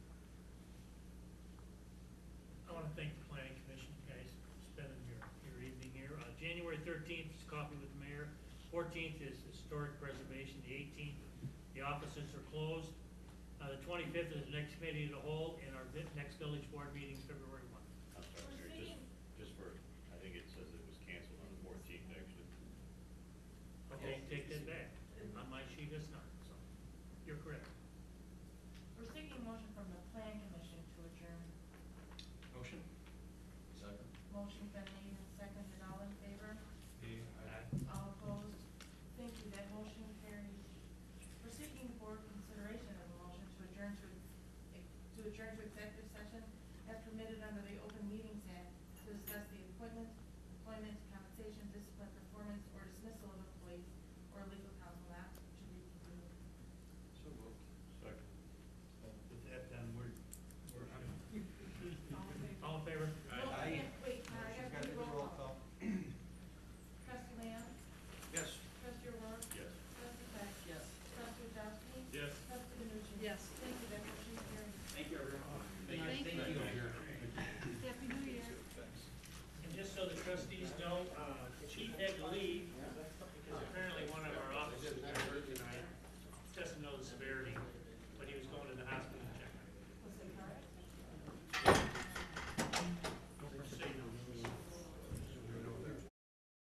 Uh, fourteenth is historic preservation, the eighteenth, the offices are closed. Uh, the twenty-fifth is the next committee of the whole, and our vi- next village board meeting is February one. I'm sorry, Mary, just, just for, I think it says it was canceled on the fourteenth, actually. Okay, take that back, on my sheet it's not, so, you're correct. We're seeking a motion from the plan commission to adjourn. Motion? Second. Motion been made and seconded, all in favor? Uh, All opposed? Thank you, that motion carries. We're seeking board consideration of a motion to adjourn to, to adjourn to executive session as permitted under the Open Meetings Act to discuss the appointment, employment, compensation, discipline, performance, uh,